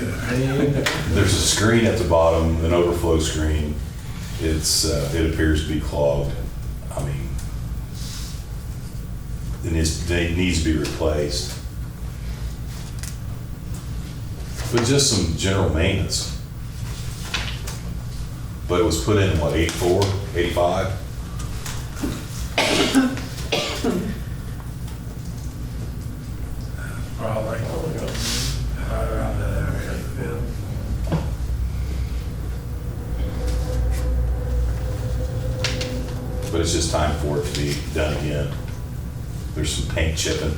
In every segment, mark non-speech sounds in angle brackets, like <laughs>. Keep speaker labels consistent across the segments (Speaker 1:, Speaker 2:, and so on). Speaker 1: There's a screen at the bottom, an overflow screen. It's, uh, it appears to be clogged. I mean, it is, it needs to be replaced. But just some general maintenance. But it was put in, what, 84, 85?
Speaker 2: Probably. Right around that area.
Speaker 1: But it's just time for it to be done again. There's some paint chipping.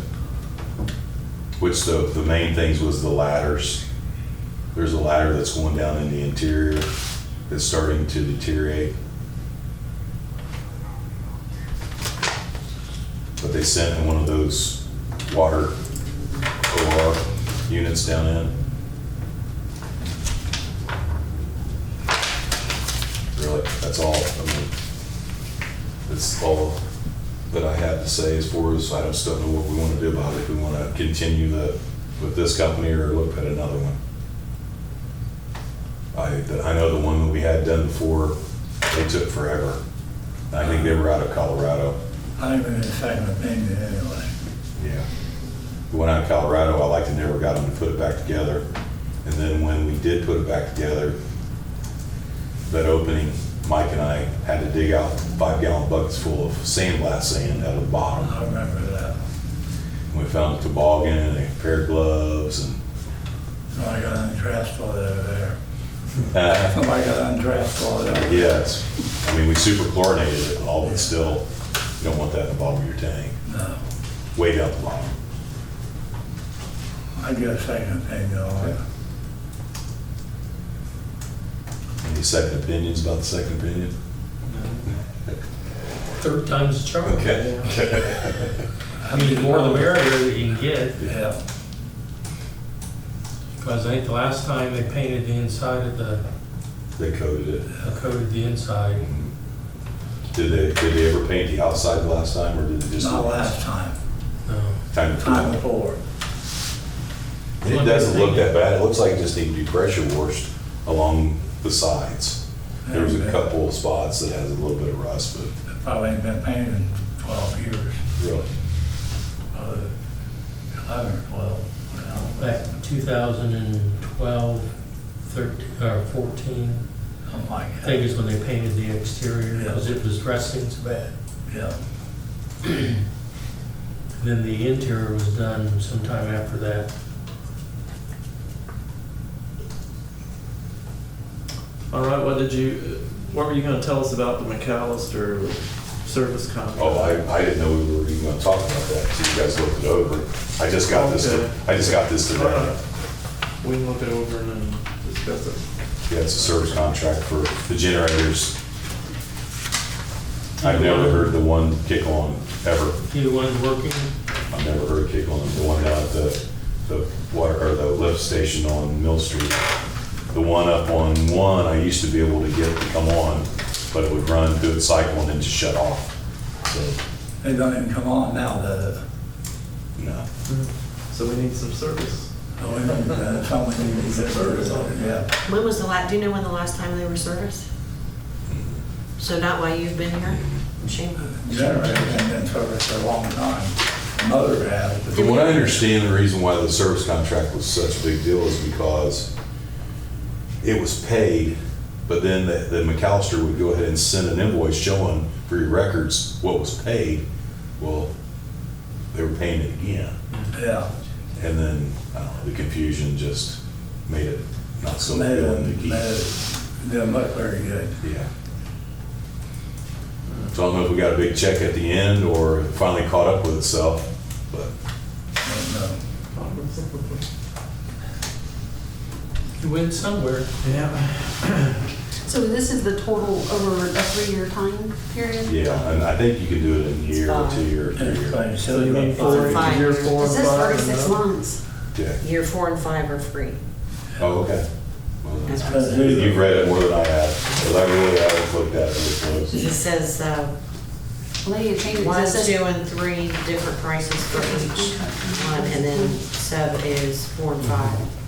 Speaker 1: Which the, the main things was the ladders. There's a ladder that's going down in the interior that's starting to deteriorate. But they sent in one of those water OR units down in. Really, that's all. I mean, that's all that I have to say as far as, I just don't know what we want to do about it. If we want to continue the, with this company or look at another one. I, I know the one that we had done before, they took forever. I think they were out of Colorado.
Speaker 2: I think we're in the same opinion anyway.
Speaker 1: Yeah. The one out of Colorado, I like to never got them to put it back together. And then when we did put it back together, that opening, Mike and I had to dig out five gallon buckets full of sandblast sand out of the bottom.
Speaker 2: I remember that.
Speaker 1: We found a toboggan and a pair of gloves and
Speaker 2: Somebody got undressed while they were there.
Speaker 1: uh,
Speaker 2: Somebody got undressed while they were there.
Speaker 1: yeah, it's, I mean, we super chlorinated it all, but still, you don't want that in the bottom of your tank,
Speaker 2: No,
Speaker 1: way down the bottom.
Speaker 2: I get a second opinion on it.
Speaker 1: Any second opinions about the second opinion?
Speaker 3: Third time's the charm.
Speaker 2: I
Speaker 3: I mean, the more the merrier that you can get,
Speaker 2: Yeah,
Speaker 3: because I think the last time they painted the inside of the,
Speaker 1: <laughs>
Speaker 3: uh,
Speaker 1: They coated it.
Speaker 3: coated the inside.
Speaker 1: Did they, did they ever paint the outside last time, or did they just?
Speaker 2: not last time,
Speaker 3: No,
Speaker 1: Time to
Speaker 2: time
Speaker 1: time.
Speaker 2: before.
Speaker 1: It doesn't look that bad. It looks like it just needed to be pressure washed along the sides. There was a couple of spots that has a little bit of rust, but
Speaker 2: It Probably ain't been painted in twelve years,
Speaker 1: really,
Speaker 2: probably eleven or twelve. you know,
Speaker 3: back in 2012, 13, or 14,
Speaker 2: Something
Speaker 3: I
Speaker 2: like
Speaker 3: think
Speaker 2: that,
Speaker 3: is when they painted the exterior, because it was dressing so bad.
Speaker 2: yeah.
Speaker 3: And Then the interior was done sometime after that.
Speaker 4: All right, what did you, what were you gonna tell us about the McAllister service contract?
Speaker 1: oh, I, I didn't know we were even gonna talk about that, so you guys looked it over. I just got this,
Speaker 4: Okay.
Speaker 1: I just got this
Speaker 4: All
Speaker 1: today.
Speaker 4: right. We can look it over and then discuss it.
Speaker 1: Yeah, it's a service contract for the generators. I've never heard the one kick on, ever.
Speaker 3: Either one's working,
Speaker 1: I've never heard a kick on the one down at the, the water, or the lift station on Mill Street. The one up on one, I used to be able to get it to come on, but it would run, do its cycle and then just shut off. So,
Speaker 2: They don't even come on now, does it?
Speaker 1: no.
Speaker 4: So we need some service.
Speaker 2: Oh, we don't, uh, someone needs to get service on it, yeah.
Speaker 5: When was the la, do you know when the last time they were serviced? So not while you've been here? Shame.
Speaker 2: generator and been in service for a long time. Mother had,
Speaker 1: From what I understand, the reason why the service contract was such a big deal is because it was paid, but then the, the McAllister would go ahead and send an invoice showing for your records what was paid. Well, they were paying it again.
Speaker 2: yeah,
Speaker 1: And then, I don't know, the confusion just made it not so
Speaker 2: made
Speaker 1: good to
Speaker 2: it,
Speaker 1: keep.
Speaker 2: made it, didn't look very good.
Speaker 1: Yeah. So I don't know if we got a big check at the end or it finally caught up with itself, but
Speaker 2: Don't know.
Speaker 1: <laughs>
Speaker 3: you went somewhere.
Speaker 4: Yeah.
Speaker 6: So this is the total over a three-year time period?
Speaker 1: yeah, and I think you can do it in a year or two year, or three year.
Speaker 2: Everybody said
Speaker 4: So you mean
Speaker 2: about
Speaker 4: four,
Speaker 5: Five
Speaker 4: year
Speaker 5: years.
Speaker 4: four and
Speaker 6: It says
Speaker 4: five? and
Speaker 6: thirty-six
Speaker 4: no?
Speaker 6: months.
Speaker 1: Yeah.
Speaker 5: Year four and five are free.
Speaker 1: Oh, okay. Well,
Speaker 5: That's what it
Speaker 2: But
Speaker 5: says.
Speaker 2: who-
Speaker 1: You've read it more than I have, because I really haven't looked at it this close.
Speaker 5: It says, uh,
Speaker 6: Well, they changed it.
Speaker 5: one,
Speaker 6: It
Speaker 5: two,
Speaker 6: says-
Speaker 5: and three different prices for each one, and then sub is four and five.